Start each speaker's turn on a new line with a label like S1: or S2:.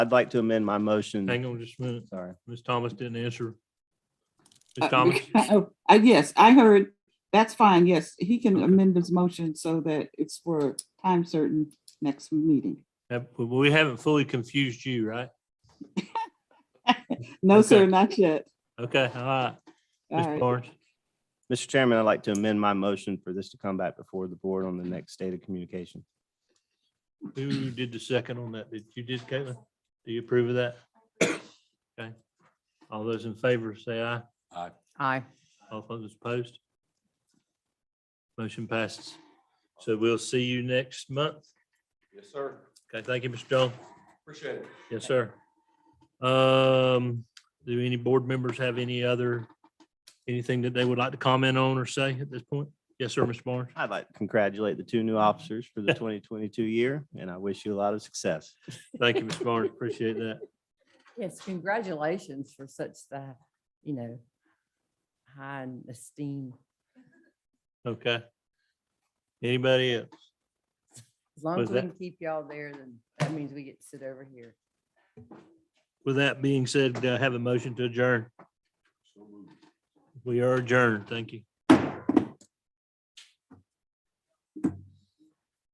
S1: I'd like to amend my motion.
S2: Hang on just a minute.
S1: Sorry.
S2: Ms. Thomas didn't answer.
S3: Uh,
S2: Ms. Thomas,
S3: oh, uh, yes, I heard, that's fine, yes, he can amend his motion so that it's for time certain next meeting.
S2: have- we haven't fully confused you, right?
S3: No, sir,
S2: Okay.
S3: not yet.
S2: Okay, all right.
S3: All
S2: Ms.
S3: right.
S2: Barnes,
S1: Mr. Chairman, I'd like to amend my motion for this to come back before the board on the next state of communication.
S2: who did the second on that? Did you did, Caitlin? Do you approve of that? Okay. All those in favor, say aye.
S4: Aye.
S2: All those opposed? Motion passes. So we'll see you next month.
S5: Yes, sir.
S2: Okay, thank you, Mr. Jones.
S5: Appreciate it.
S2: Yes, sir. Um, do any board members have any other, anything that they would like to comment on or say at this point? Yes, sir, Mr. Barnes.
S1: I'd like to congratulate the two new officers for the 2022 year, and I wish you a lot of success.
S2: Thank you, Mr. Barnes. Appreciate that.
S4: Yes, congratulations for such the, you know, high in esteem.
S2: Okay. Anybody else?
S4: As long
S2: Was
S4: as we
S2: that-
S4: can keep y'all there, then that means we get to sit over here.
S2: With that being said, do I have a motion to adjourn? We are adjourned. Thank you.